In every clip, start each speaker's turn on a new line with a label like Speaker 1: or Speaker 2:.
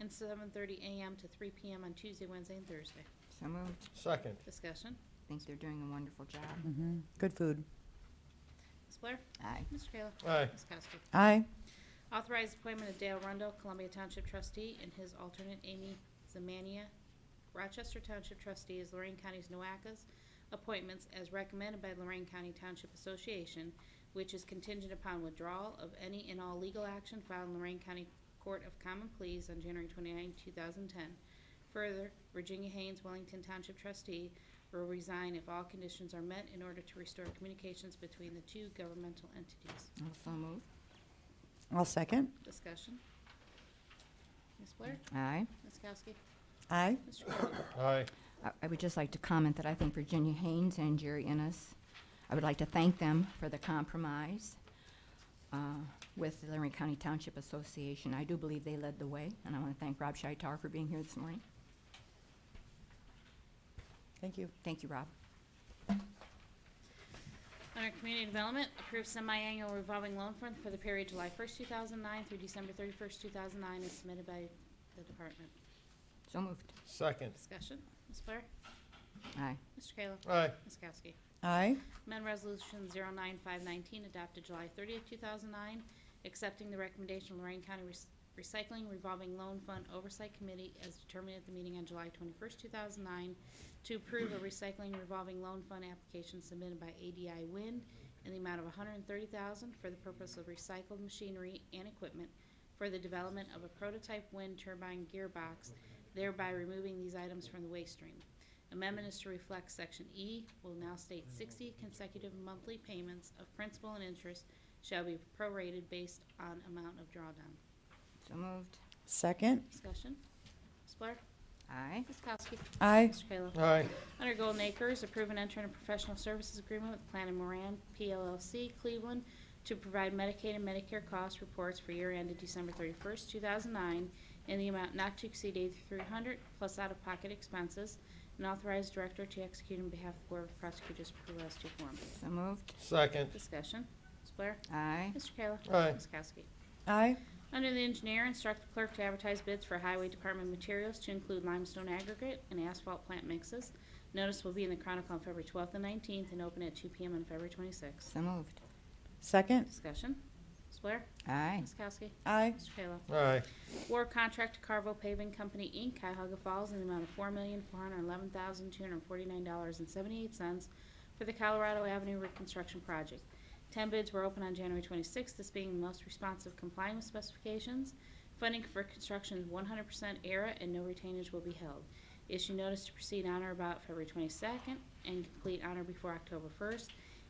Speaker 1: and 7:30 a.m. to 3 p.m. on Tuesday, Wednesday, and Thursday.
Speaker 2: So moved.
Speaker 3: second,
Speaker 1: Discussion.
Speaker 2: Think they're doing a wonderful job.
Speaker 4: Mhm. Good food.
Speaker 1: Ms. Blair?
Speaker 2: Aye.
Speaker 1: Mr. Kayla?
Speaker 3: aye,
Speaker 1: Ms. Kowski?
Speaker 4: Aye.
Speaker 1: Authorized appointment of Dale Rundle, Columbia Township trustee, and his alternate Amy Zamania, Rochester Township trustee, as Lorraine County's NOACA's appointments as recommended by Lorraine County Township Association, which is contingent upon withdrawal of any and all legal action filed in Lorraine County Court of Common Pleas on January 29, 2010. Further, Virginia Haynes, Wellington Township trustee, will resign if all conditions are met in order to restore communications between the two governmental entities.
Speaker 2: Also moved.
Speaker 4: I'll second.
Speaker 1: Discussion. Ms. Blair?
Speaker 2: Aye.
Speaker 1: Ms. Kowski?
Speaker 4: Aye.
Speaker 1: Mr. Kayla?
Speaker 3: aye,
Speaker 2: I- I would just like to comment that I think Virginia Haynes and Jerry Ennis, I would like to thank them for the compromise uh, with the Lorraine County Township Association. I do believe they led the way, and I want to thank Rob Shitar for being here this morning.
Speaker 4: Thank you.
Speaker 2: Thank you, Rob.
Speaker 1: Under Community Development, approve semi-annual revolving loan fund for the period July 1st, 2009 through December 31st, 2009, as submitted by the department.
Speaker 2: So moved.
Speaker 3: second,
Speaker 1: Discussion. Ms. Blair?
Speaker 2: Aye.
Speaker 1: Mr. Kayla?
Speaker 3: aye,
Speaker 1: Ms. Kowski?
Speaker 4: Aye.
Speaker 1: Amend Resolution 09519, adopted July 30th, 2009, accepting the recommendation of Lorraine County Rec- Recycling Revolving Loan Fund Oversight Committee as determined at the meeting on July 21st, 2009, to approve a recycling revolving loan fund application submitted by ADI Wind in the amount of $130,000 for the purpose of recycled machinery and equipment for the development of a prototype wind turbine gearbox, thereby removing these items from the waste stream. Amendment is to reflect Section E will now state 60 consecutive monthly payments of principal and interest shall be prorated based on amount of drawdown.
Speaker 2: So moved.
Speaker 4: Second.
Speaker 1: Discussion? Ms. Blair?
Speaker 2: Aye.
Speaker 1: Ms. Kowski?
Speaker 4: Aye.
Speaker 1: Mr. Kayla?
Speaker 3: aye,
Speaker 1: Under Golden Acres, approve and enter in a professional services agreement with Plan and Moran, PLLC, Cleveland, to provide Medicaid and Medicare cost reports for year ended December 31st, 2009, in the amount not to exceed 8,300 plus out-of-pocket expenses, and authorize director to execute on behalf of the Board of Prosecutors per as to form.
Speaker 2: So moved.
Speaker 3: second,
Speaker 1: Discussion. Ms. Blair?
Speaker 2: Aye.
Speaker 1: Mr. Kayla?
Speaker 3: Aye.
Speaker 1: Ms. Kowski?
Speaker 4: Aye.
Speaker 1: Under the engineer, instruct the clerk to advertise bids for highway department materials to include limestone aggregate and asphalt plant mixes. Notice will be in the Chronicle on February 12th and 19th and open at 2 PM on February 26th.
Speaker 2: So moved.
Speaker 4: Second.
Speaker 1: Discussion. Ms. Blair?
Speaker 2: Aye.
Speaker 1: Ms. Kowski?
Speaker 4: Aye.
Speaker 1: Mr. Kayla?
Speaker 3: aye,
Speaker 1: War contract to Carvo Paving Company, Inc., Cuyahoga Falls, in the amount of $4,411,249.78 for the Colorado Avenue Reconstruction Project. Ten bids were open on January 26th, this being the most responsive complying with specifications. Funding for construction is 100% ERA and no retainage will be held. Issue notice to proceed on or about February 22nd and complete on or before October 1st,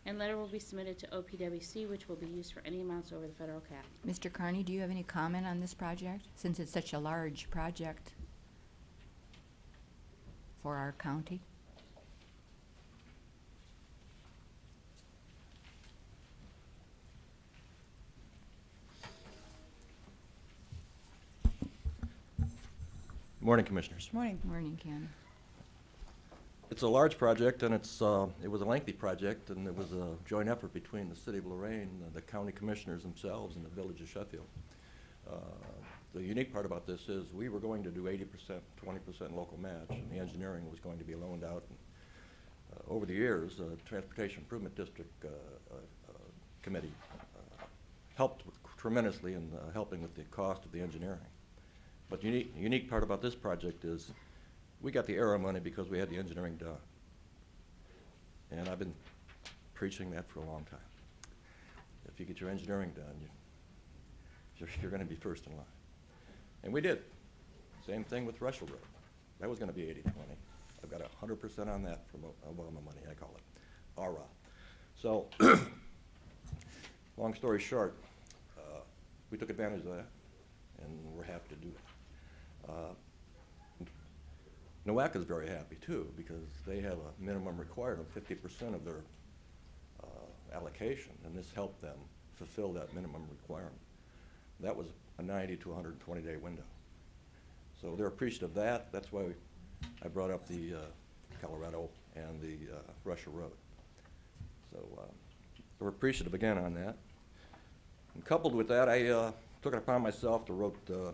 Speaker 1: and letter will be submitted to OPWC, which will be used for any amounts over the federal cap.
Speaker 2: Mr. Carney, do you have any comment on this project, since it's such a large project for our county?
Speaker 5: Morning, Commissioners.
Speaker 4: Good morning.
Speaker 2: Morning, Ken.
Speaker 5: It's a large project, and it's, uh, it was a lengthy project, and it was a joint effort between the City of Lorraine, the County Commissioners themselves, and the Village of Sheffield. Uh, The unique part about this is, we were going to do eighty percent, twenty percent local match, and the engineering was going to be loaned out. And, uh, Over the years, the Transportation Improvement District uh, uh, uh, Committee uh, helped tremendously in uh, helping with the cost of the engineering. But the unique, the unique part about this project is, we got the era money because we had the engineering done. And I've been preaching that for a long time. If you get your engineering done, you, you're, you're gonna be first in line. And we did. Same thing with Russell Road. That was gonna be eighty-twenty. I've got a hundred percent on that from O- Obama money, I call it, ARA. So, long story short, uh, we took advantage of that, and we're happy to do it. Uh, NOACA's very happy too, because they have a minimum required of fifty percent of their uh, allocation, and this helped them fulfill that minimum requirement. That was a ninety to hundred and twenty day window. So they're appreciative of that, that's why I brought up the uh, Colorado and the uh, Russia Road. So uh, we're appreciative again on that. And coupled with that, I uh, took it upon myself to wrote, uh,